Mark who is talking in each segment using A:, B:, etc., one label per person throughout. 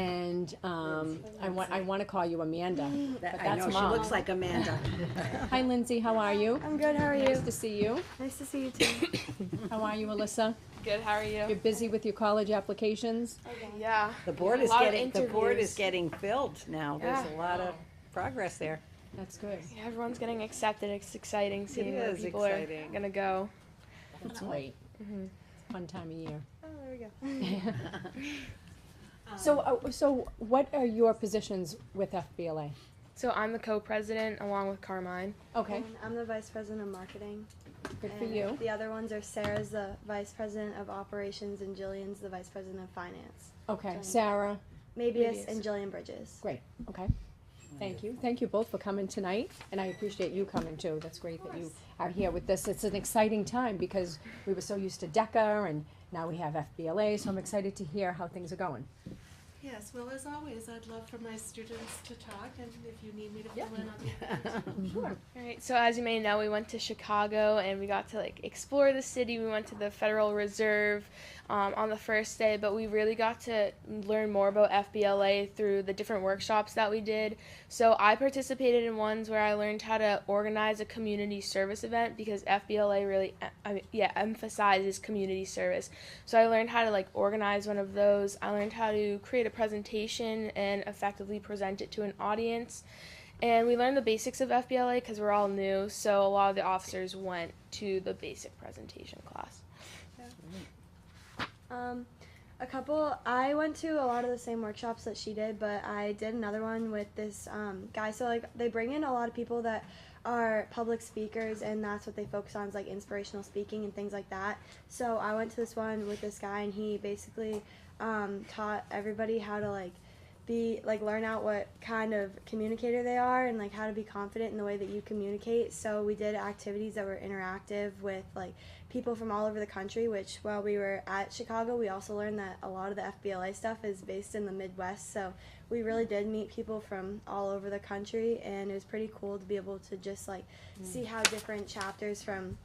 A: and, um, I want, I wanna call you Amanda.
B: That,
A: But
B: I
A: that's
B: know, she
A: mom.
B: looks like Amanda.
A: Hi Lindsay, how are you?
C: I'm good. How are
A: Nice
C: you?
A: to see you.
C: Nice to see you too.
A: How are you, Alyssa?
D: Good, how are
A: You're
D: you?
A: busy with your college applications?
D: Yeah.
B: The board
D: A
B: is
D: lot of
B: getting, the board
D: interviews. Oh.
B: is getting filled now, there's a lot of progress there.
A: That's good.
D: Yeah, Everyone's getting accepted. It's exciting seeing where
B: is
D: people
B: exciting.
D: are gonna go.
A: That's great. Fun time of year.
D: Oh, there we go.
A: So, uh, so what are your positions with FBLA?
D: So I'm the co-president along with Carmine.
A: Okay,
C: And I'm the vice president of marketing.
A: good for
C: and
A: you.
C: The other ones are Sarah's the vice president of operations and Jillian's the vice president of finance.
A: Okay, Sarah,
C: Mabius
D: Mabius.
C: and Jillian Bridges.
A: great, okay. Thank you. Thank you both for coming tonight, and I appreciate you coming too. That's great that you are here with this. It's an exciting time because we were so used to DECA and now we have FBLA, so I'm excited to hear how things are going.
E: Yes, well, as always, I'd love for my students to talk, and if you need me to
A: Yeah.
E: fill in on the
D: All right. So as you may know, we went to Chicago and we got to like explore the city. We went to the Federal Reserve um, on the first day, but we really got to learn more about FBLA through the different workshops that we did. So I participated in ones where I learned how to organize a community service event because FBLA really, em- I mean, yeah, emphasizes community service. So I learned how to like organize one of those. I learned how to create a presentation and effectively present it to an audience. And we learned the basics of FBLA because we're all new, so a lot of the officers went to the basic presentation class.
C: Um, a couple. I went to a lot of the same workshops that she did, but I did another one with this um, guy. So like they bring in a lot of people that are public speakers, and that's what they focus on is like inspirational speaking and things like that. So I went to this one with this guy, and he basically um, taught everybody how to like be like learn out what kind of communicator they are and like how to be confident in the way that you communicate so we did activities that were interactive with like people from all over the country which while we were at chicago we also learned that a lot of the fbla stuff is based in the midwest so we really did meet people from all over the country and it was pretty cool to be able to just like see how different chapters from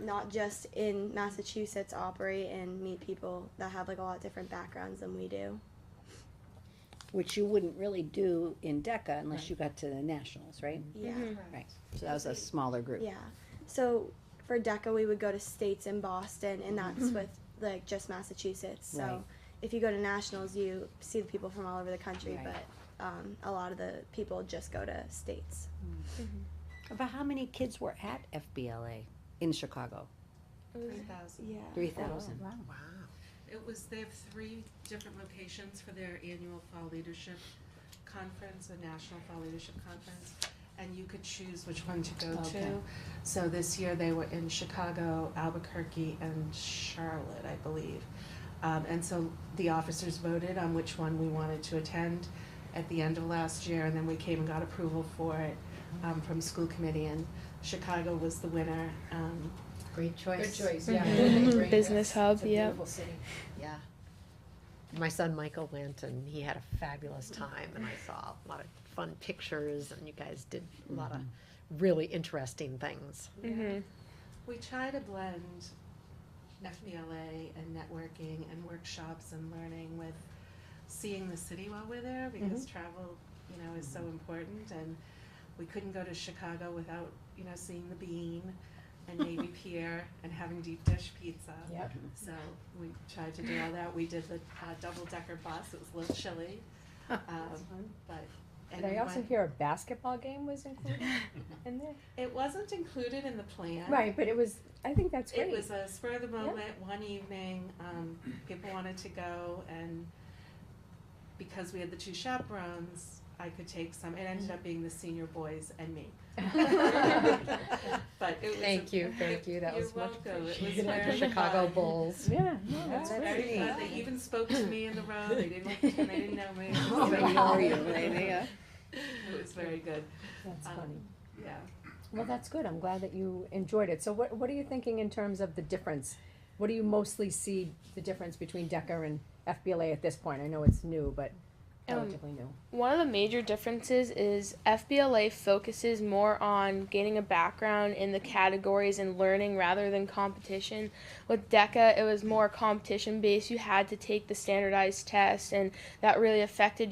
C: not just in massachusetts operate and meet people that have like a lot different backgrounds than we do
B: Which you wouldn't really do in DECA unless you got to the nationals, right?
C: yeah
B: Right, so that was a smaller group.
C: Yeah. So for DECA, we would go to states in Boston, and that's with like just Massachusetts. So
B: Mm-hmm. Right.
C: if you go to nationals, you see the people from all over the country,
B: Right.
C: but um, a lot of the people just go to states.
B: About how many kids were at FBLA in Chicago?
E: three thousand.
C: Yeah.
B: Three thousand.
E: Wow. It was, they have three different locations for their annual Fall Leadership Conference, the National Fall Leadership Conference, and you could choose which one to go
B: Okay.
E: to. So this year they were in Chicago, Albuquerque, and Charlotte, I believe. Um, and so the officers voted on which one we wanted to attend at the end of last year, and then we came and got approval for it um, from school committee, and Chicago was the winner. Um,
F: Great choice.
G: Good choice, yeah.
F: yeah.
D: Mhm. Business hub,
G: It's a
D: yeah.
G: beautiful city.
F: Yeah. My son Michael went and he had a fabulous time and I saw a lot of fun pictures and you guys did a lot of really interesting things.
D: hmm
E: We try to blend FBLA and networking and workshops and learning with seeing the city while we're there because
A: Mm-hmm.
E: travel, you know, is so important and we couldn't go to Chicago without, you know, seeing the bean and Navy Pier and having deep dish pizza.
A: Yep.
E: So we tried to do all that. We did the uh, double decker bus. It was a little chilly. Um, but
A: Did I
E: we
A: also
E: went-
A: hear a basketball game was included in there?
E: it wasn't included in the plan.
A: Right, but it was, I think that's great.
E: It was a spur of the moment, one evening, um, people wanted to go and because we had the two chaperones, I could take some, it ended up being the senior boys and me. But it was.
F: Thank you, thank you. That
E: You're
F: was much
E: welcome. It was
F: appreciated.
E: very
F: Chicago
E: fun.
F: Bulls.
A: Yeah, no, that's
E: It was
A: great.
E: very fun. They even spoke to me in the road, they didn't, they didn't know me. It
F: Oh,
E: was
B: They
E: very-
B: know you, they- they-
E: It was very good,
A: That's
E: Um,
A: funny.
E: yeah.
A: Well, that's good. I'm glad that you enjoyed it. So what, what are you thinking in terms of the difference? What do you mostly see the difference between DECA and FBLA at this point? I know it's new, but
D: Um,
A: relatively new.
D: One of the major differences is FBLA focuses more on gaining a background in the categories and learning rather than competition. With E DECA, it was more competition based. You had to take the standardized test, and that really affected